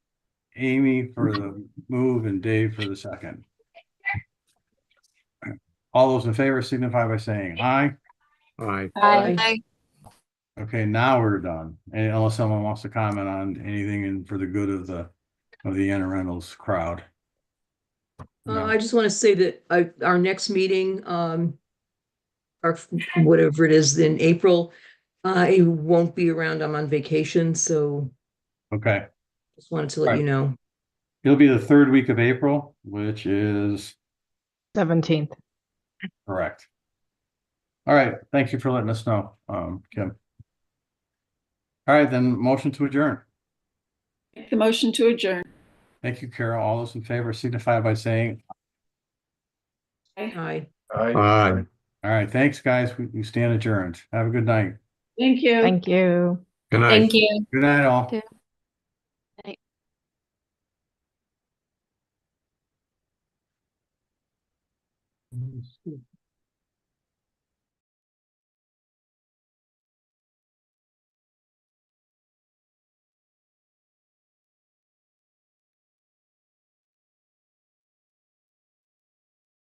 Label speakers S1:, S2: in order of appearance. S1: Amy for the move and Dave for the second. All those in favor signify by saying aye.
S2: Aye.
S3: Aye.
S1: Okay, now we're done. And unless someone wants to comment on anything and for the good of the, of the Anna Reynolds crowd.
S4: Uh,
S1: No.
S4: I just want to say that I, our next meeting, um, or f- whatever it is in April, I won't be around. I'm on vacation, so
S1: Okay,
S4: just wanted to let you know.
S1: it'll be the third week of April, which is
S3: Seventeenth.
S1: correct. All right, thank you for letting us know, um, Kim. All right, then motion to adjourn.
S5: Make the motion to adjourn.
S1: Thank you, Carol. All those in favor signify by saying,
S5: Thank
S4: Hi.
S2: Aye.
S1: all right, thanks, guys. We, we stand adjourned. Have a good night.
S5: you.
S3: Thank you.
S2: Good night.
S6: Thank you.
S1: Good night, all.